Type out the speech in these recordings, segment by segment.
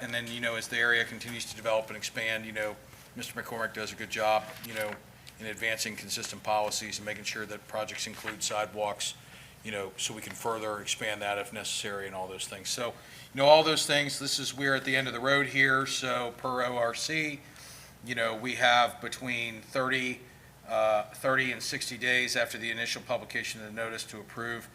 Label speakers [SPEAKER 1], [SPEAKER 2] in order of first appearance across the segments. [SPEAKER 1] And then, you know, as the area continues to develop and expand, you know, Mr. McCormick does a good job, you know, in advancing consistent policies and making sure that projects include sidewalks, you know, so we can further expand that if necessary and all those things. So, you know, all those things, this is, we're at the end of the road here, so per ORC, you know, we have between 30, uh, 30 and 60 days after the initial publication of the notice to approve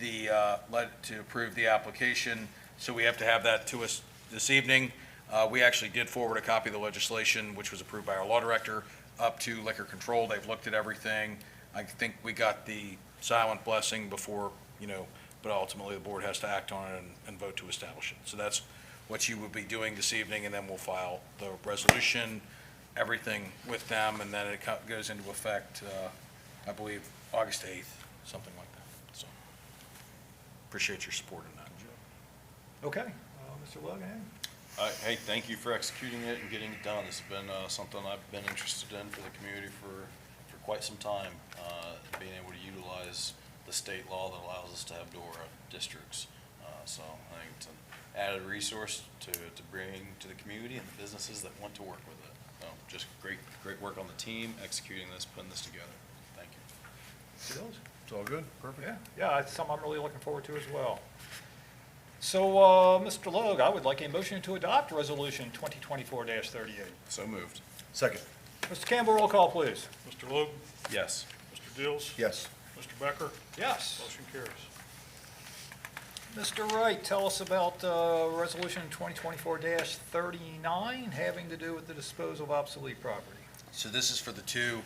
[SPEAKER 1] the, uh, let, to approve the application. So we have to have that to us this evening. Uh, We actually did forward a copy of the legislation, which was approved by our law director, up to liquor control. They've looked at everything. I think we got the silent blessing before, you know, but ultimately the board has to act on it and- and vote to establish it. So that's what you will be doing this evening, and then we'll file the resolution, everything with them, and then it co- goes into effect, uh, I believe, August 8th, something like that. So appreciate your support in that.
[SPEAKER 2] Okay, uh, Mr. Logan?
[SPEAKER 3] Uh, Hey, thank you for executing it and getting it done. It's been uh, something I've been interested in for the community for, for quite some time. uh, Being able to utilize the state law that allows us to have DORA districts. Uh, So I think it's an added resource to, to bring to the community and the businesses that want to work with it. So Just great, great work on the team, executing this, putting this together. Thank you.
[SPEAKER 2] Mr. Dills?
[SPEAKER 1] It's all good?
[SPEAKER 2] Perfect. Yeah, it's something I'm really looking forward to as well. So, uh, Mr. Logue, I would like a motion to adopt Resolution 2024-38.
[SPEAKER 3] So moved.
[SPEAKER 4] Second.
[SPEAKER 2] Mr. Campbell, roll call, please.
[SPEAKER 5] Mr. Logue,
[SPEAKER 3] Yes.
[SPEAKER 5] Mr. Dills,
[SPEAKER 4] Yes.
[SPEAKER 5] Mr. Becker,
[SPEAKER 2] Yes.
[SPEAKER 5] motion carries.
[SPEAKER 2] Mr. Wright, tell us about uh, Resolution 2024-39, having to do with the disposal of obsolete property.
[SPEAKER 1] So this is for the two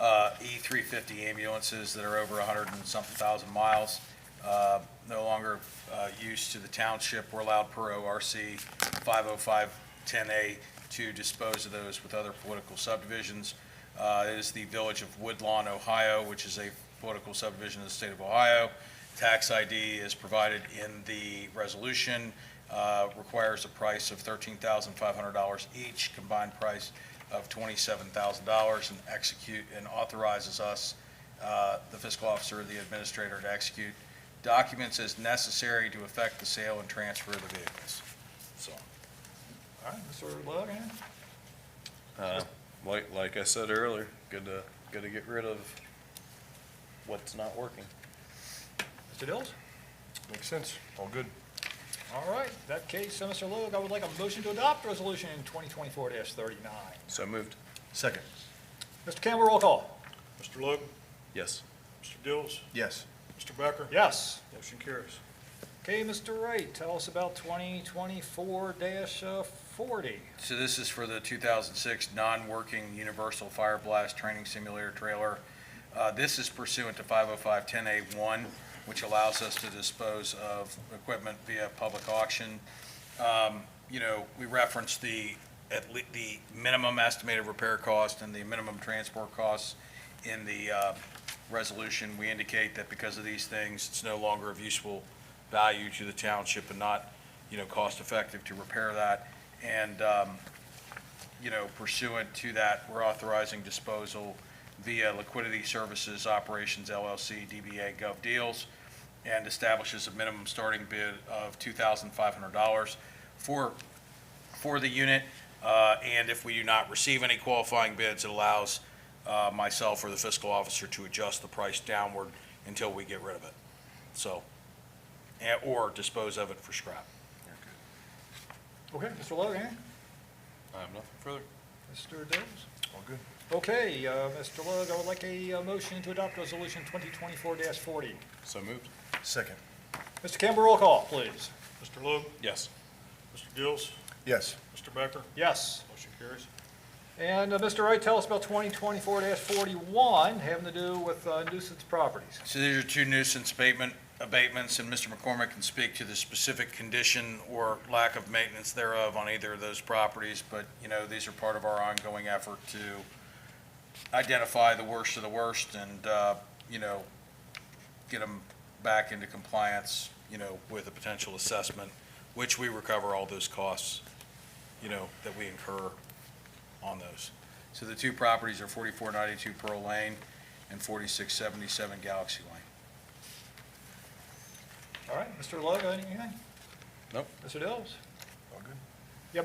[SPEAKER 1] uh, E350 ambulances that are over 100 and something thousand miles, uh, no longer uh, used to the township. We're allowed per ORC 50510A to dispose of those with other political subdivisions. Uh, It is the Village of Woodlawn, Ohio, which is a political subdivision of the state of Ohio. Tax ID is provided in the resolution, uh, requires a price of $13,500 each, combined price of twenty-seven thousand dollars and execute, and authorizes us, uh, the fiscal officer or the administrator to execute documents as necessary to effect the sale and transfer of the vehicles. So,
[SPEAKER 2] All right, Mr. Logan?
[SPEAKER 3] Uh, Like, like I said earlier, good to, good to get rid of what's not working.
[SPEAKER 2] Mr. Dills?
[SPEAKER 4] Makes sense. All good.
[SPEAKER 2] All right, in that case, uh, Mr. Logue, I would like a motion to adopt Resolution 2024-39.
[SPEAKER 3] So moved.
[SPEAKER 4] Second.
[SPEAKER 2] Mr. Campbell, roll call.
[SPEAKER 5] Mr. Logue,
[SPEAKER 3] Yes.
[SPEAKER 5] Mr. Dills,
[SPEAKER 4] Yes.
[SPEAKER 5] Mr. Becker,
[SPEAKER 2] Yes.
[SPEAKER 5] motion carries.
[SPEAKER 2] Okay, Mr. Wright, tell us about 2024-40.
[SPEAKER 1] so this is for the two thousand six non-working universal fire blast training simulator trailer. Uh, this is pursuant to five oh five ten A one, which allows us to dispose of equipment via public auction. Um, you know, we referenced the, at le, the minimum estimated repair cost and the minimum transport costs in the, uh, resolution. We indicate that because of these things, it's no longer of useful value to the township and not, you know, cost-effective to repair that. And, um, you know, pursuant to that, we're authorizing disposal via Liquidity Services Operations LLC, DBA Gov Deals, and establishes a minimum starting bid of $2,500 for, for the unit. Uh, And if we do not receive any qualifying bids, it allows uh, myself or the fiscal officer to adjust the price downward until we get rid of it. So, and- or dispose of it for scrap.
[SPEAKER 2] Okay, eh? Mr. Logan?
[SPEAKER 3] I have nothing further.
[SPEAKER 2] Mr. Dills?
[SPEAKER 4] All good.
[SPEAKER 2] Okay, uh, Mr. Logue, I would like a uh, motion to adopt Resolution 2024-40.
[SPEAKER 3] So moved.
[SPEAKER 4] Second.
[SPEAKER 2] Mr. Campbell, roll call, please.
[SPEAKER 5] Mr. Logue,
[SPEAKER 3] Yes.
[SPEAKER 5] Mr. Dills,
[SPEAKER 4] Yes.
[SPEAKER 5] Mr. Becker,
[SPEAKER 2] Yes.
[SPEAKER 5] motion carries.
[SPEAKER 2] And uh, Mr. Wright, tell us about 2024-41, having to do with uh, nuisance properties.
[SPEAKER 1] So these are two nuisance abatement, abatements, and Mr. McCormick can speak to the specific condition or lack of maintenance thereof on either of those properties, but, you know, these are part of our ongoing effort to identify the worst of the worst and, uh, you know, get them back into compliance, you know, with a potential assessment, which we recover all those costs, you know, that we incur on those. So the two properties are forty-four ninety-two Pearl Lane and forty-six seventy-seven Galaxy Lane.
[SPEAKER 2] All right, Mr. Logue, anything?
[SPEAKER 3] Nope.
[SPEAKER 2] Mr. Dills?